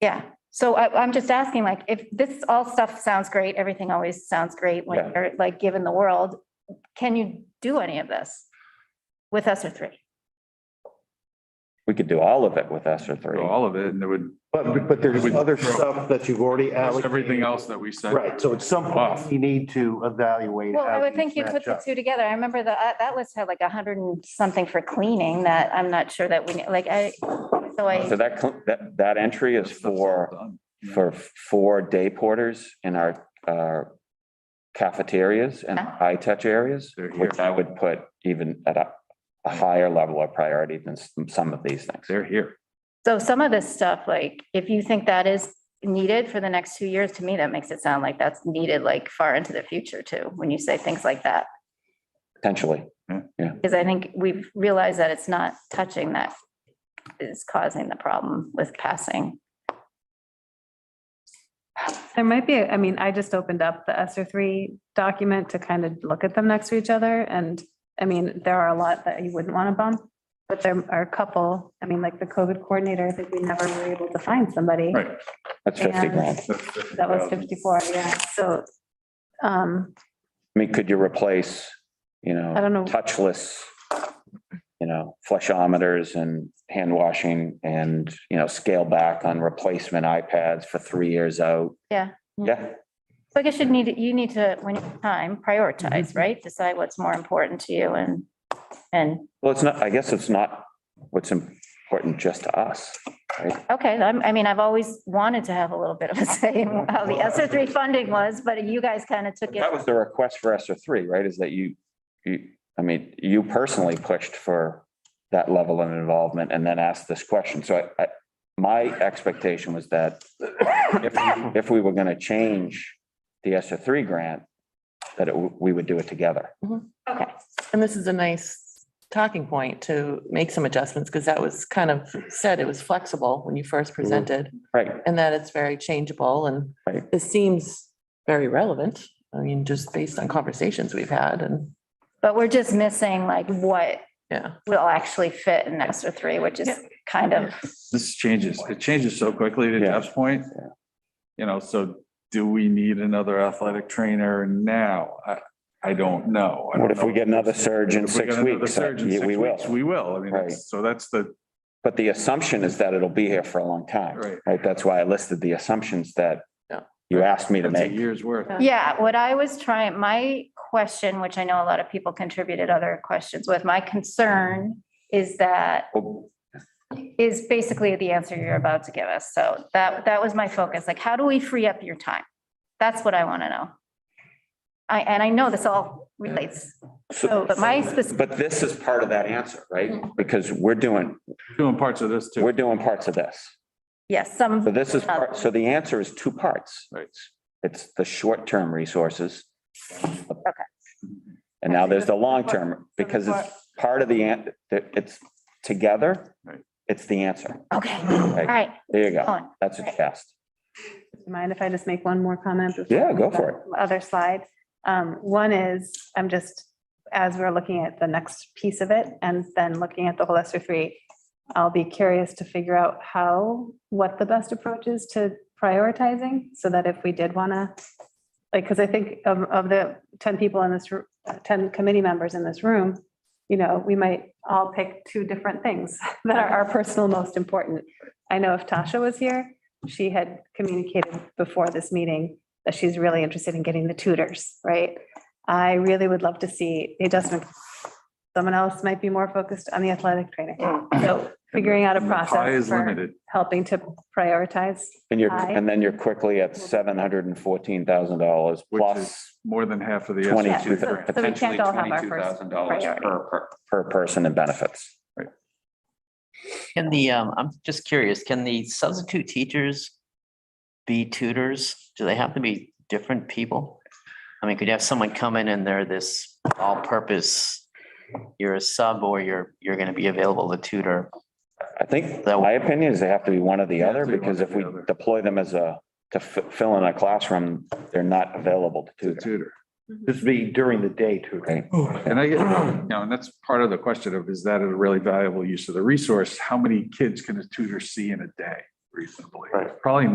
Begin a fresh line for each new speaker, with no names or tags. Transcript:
Yeah, so I, I'm just asking, like, if this all stuff sounds great, everything always sounds great when
Yeah.
you're like given the world, can you do any of this with us or three?
We could do all of it with ESER three.
through all of it and there would,
But, but there's
Would-
other stuff that you've already
there's
allocated.
everything else that we said.
Right, so at some point,
Off.
you need to evaluate.
Well, I
how
would
these
think you put
match
the
up.
two together. I remember the, uh, that list had like a hundred and something for cleaning that I'm not sure that we, like, I, so
So
I,
that, cl- that, that entry is
Stuff's all
for,
done.
for four day porters in our, our cafeterias and
Yeah.
high touch areas,
They're here.
which I would put even at a, a higher level of priority than s- some of these things.
They're here.
so some of this stuff, like, if you think that is needed for the next two years, to me, that makes it sound like that's needed like far into the future too, when you say things like that.
Potentially,
Because I think we've realized that it's not touching that is causing the problem with passing.
There might be, I mean, I just opened up the ESER three document to kind of look at them next to each other and, I mean, there are a lot that you wouldn't want to bump. But there are a couple, I mean, like the COVID coordinator, I think we never were able to find somebody.
Right.
that's fifty
And-
grand.
That was fifty-four, yeah, so, um,
I mean, could you replace, you know?
I don't know.
Touchless, you know, flushometers and hand washing and, you know, scale back on replacement iPads for three years out.
Yeah.
Yeah,
So I guess you need, you need to, when you have time,
Mm-hmm.
prioritize, right? Decide what's more important to you and, and,
well, it's not, I guess it's not what's important just to us.
okay, I'm, I mean, I've always wanted to have a little bit of a say in how the S R three funding was, but you guys kind of took it.
That was the request for ESER three, right? Is that you, you, I mean, you personally pushed for that level of involvement and then asked this question. So I, I, my expectation was that if, if we were going to change the ESER three grant, that it, w- we would do it together.
Okay,
And this is a nice talking point to make some adjustments, because that was kind of said, it was flexible when you first presented,
Right.
and that it's very changeable, and
Right.
it seems very relevant. I mean, just based on conversations we've had, and,
but we're just missing like what
yeah.
will actually fit in S R three, which is kind of,
This changes, it changes so quickly to
Yeah.
Jeff's point.
Yeah.
You know, so do we need another athletic trainer now? I, I don't know. I
What
don't
if we
know.
get another surge in
If we
six
get another
weeks?
surge in
Yeah,
six
We will.
weeks, We will. I mean,
Right.
that's- so that's the,
But the assumption is that it'll be here for a long time.
Right.
Right? That's why I listed the assumptions that
Yeah.
you asked me to
that's a
make.
year's worth.
yeah, what I was trying, my question, which I know a lot of people contributed other questions with, my concern is that
Well,
is basically the answer you're about to give us. So that, that was my focus. Like, how do we free up your time? That's what I want to know. I, and I know this all relates,
so-
so, but my Mm-hmm. specific,
But this is part of that answer, right? Because we're doing,
Doing parts of this too.
we're doing parts of this.
yes,
So
some,
this is, part. so the answer is two parts.
Right.
It's the short-term resources. Okay. And now there's the long-term, because it's part of the, an- that it's together,
Right.
it's the answer.
okay, all right,
There you go.
on.
That's a test.
do you mind if I just make one more comment? before
Yeah,
we
go
move
for
on to the Other slide. Um, one is, I'm just, as we're looking at the next piece of it and then looking at the whole ESER three, I'll be curious to figure out how, what the best approach is to prioritizing so that if we did want to, like, because I think of, of the ten people in this, ro- uh, ten committee members in this room, you know, we might all pick two different things that are our personal most important. I know if Tasha was here, she had communicated before this meeting that she's really interested in getting the tutors, right? I really would love to see, it doesn't, someone else might be more focused on the athletic training. So figuring out a
And the Pie
process
is
for
limited.
helping to prioritize.
And you're,
Aye.
and then you're quickly at seven hundred and fourteen thousand dollars
Which
plus
More than half of the. E SAT
twenty-two,
grant.
so- so we
potentially
can't all have our
twenty-two
first
thousand dollars
priority.
per, per- per person in benefits.
Can the, um, I'm just curious, can the substitute teachers be tutors? Do they have to be different people? I mean, could you have someone come in and they're this all-purpose, you're a sub or you're, you're gonna be available to tutor?
I think,
That-
my opinion is they have to be one or the
Yeah,
other,
they want
because
to
if
be
we
other.
deploy them as a, to fi- fill in a classroom, they're not available to
To
tutor.
tutor.
This would be during the day too.
Right.
And I get, you know, and that's part of the question of, is that a really valuable use of the resource? How many kids can a tutor see in a day? reasonably.
Right.
Probably